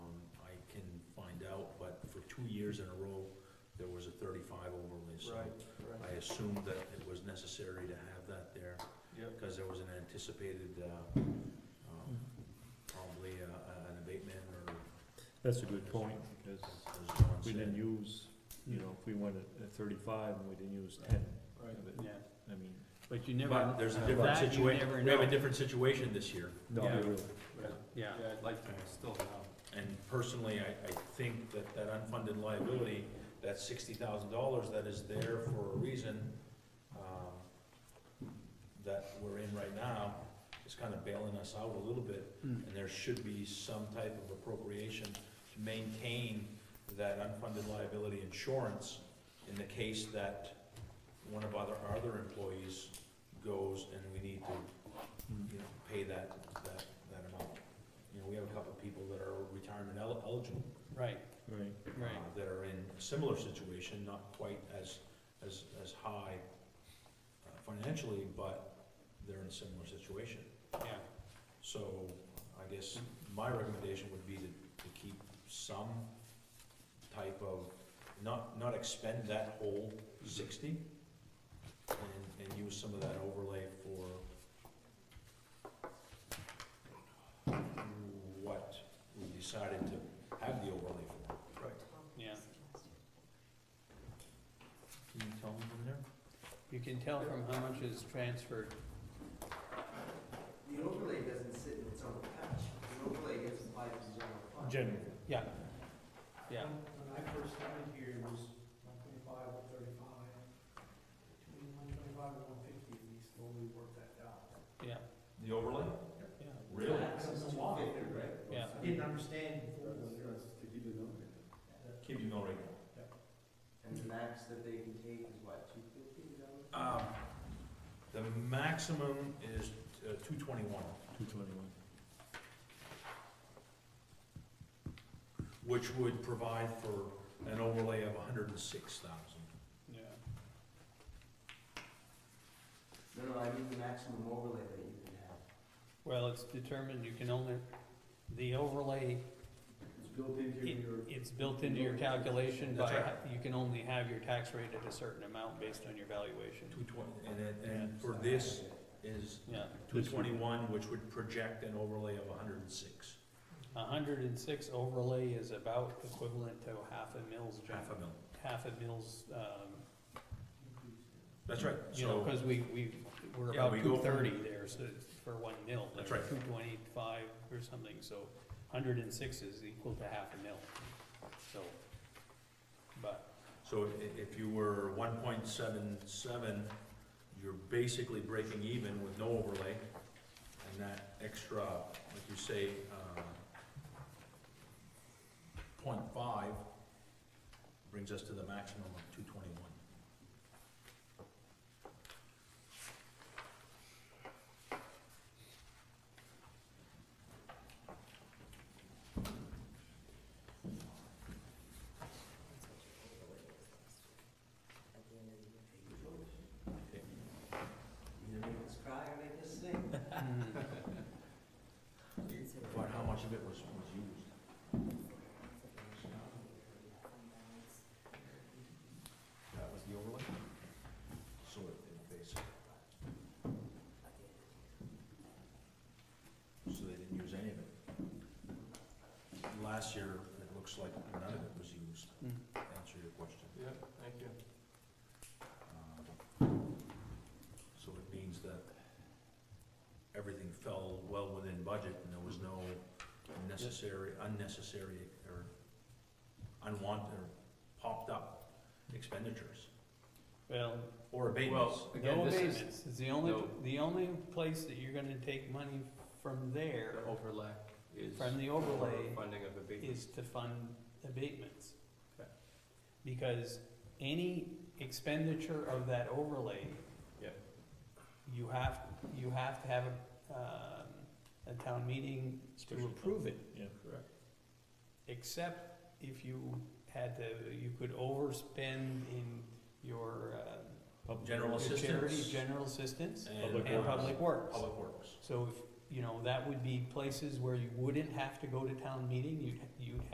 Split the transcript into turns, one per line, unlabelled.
Um, years in a row, there was a thirty-five overlay, so
Right,
I
right,
assumed that it was necessary to have that there,
yep,
because there was an anticipated, uh, um, probably, uh, an abatement or.
That's a good point, because
as John
we didn't
said.
use, you know, if we went at- at thirty-five and we didn't use ten
right,
of it,
Yeah,
I mean,
but you never.
But there's a
uh,
different
that you never
situation, we have a
know.
different situation this year.
no,
Yeah.
they were-
right.
Yeah,
Yeah, I'd like to still know.
And personally, I, I think that that unfunded liability, that sixty thousand dollars that is there for a reason, um, that we're in right now, is kind of bailing us out a little bit.
Mm.
And there should be some type of appropriation to maintain that unfunded liability insurance in the case that one of other, our other employees goes and we need to
Mm.
you know, pay that, that, that amount. You know, we have a couple of people that are retirement el- eligible,
right,
Mm-hmm. right,
uh,
right,
that are in a similar situation, not quite as, as, as high uh, financially, but they're in a similar situation.
yeah.
So I guess my recommendation would be to, to keep some type of, not, not expend that whole sixty and, and use some of that overlay for what we decided to have the overlay for.
Yeah.
Can you tell me from there?
You can tell from how much is transferred.
The overlay doesn't sit in its own patch. The overlay gets applied to the general fund.
generally.
Yeah, yeah,
When I first started here, it was one twenty-five, one thirty-five, between one twenty-five and one fifty, and we slowly worked that down.
yeah,
The overlay?
yeah.
Really?
That's a lot, right?
Yeah.
I didn't understand before.
Keep you going right
And the max that they can take is what, two fifty, is that what?
Um, the maximum is uh, two twenty-one.
Two twenty-one.
which would provide for an overlay of hundred and six thousand.
Yeah.
No, no, I mean the maximum overlay that you can have.
Well, it's determined you can only, the overlay,
It's built into
it, it's built into your calculation, but
That's
you can only have your tax rate at a certain amount based on your valuation.
Two twenty, and then, and for this is
Yeah,
two twenty-one, which would project an overlay of hundred and six,
a hundred and six overlay is about equivalent to half a mil's, gen-
half a mil.
half a mil's, um,
That's right,
You know,
so,
cause we, we, we're
Yeah, we
about
go
two
from-
thirty there, so it's for one mil.
That's
like
right.
Two point eight five or something, so hundred and six is equal to half a mil, so, but,
so i- if you were one point seven seven, you're basically breaking even with no overlay, and that extra, like you say, uh, point five brings us to the maximum of two twenty-one.
Either make us cry or make us sing.
mm,
But how much of it was, was used? That was the overlay? So it, it basically. So they didn't use any of it. Last year, it looks like none of it was used,
mm.
to answer your question.
Yeah, thank you.
Um, So it means that everything fell well within budget and there was no necessary, unnecessary, or unwanted, or popped up expenditures
Well,
or abatements.
no
Again, this is
abatements, it's the only,
no-
the only place that you're gonna take money from there,
the overlap is.
from the overlay,
Funding of abatement.
is to fund abatements.
Okay.
Because any expenditure of that overlay.
Yep.
You have, you have to have, a, um, a town meeting to
Special town.
approve it,
Yeah.
Correct.
except if you had to, you could overspend in your, uh,
Public
General
your
works.
assistance.
charity, general assistance
Public
and
works.
public works.
Public works.
So if, you know, that would be places where you wouldn't have to go to town meeting, you'd, you'd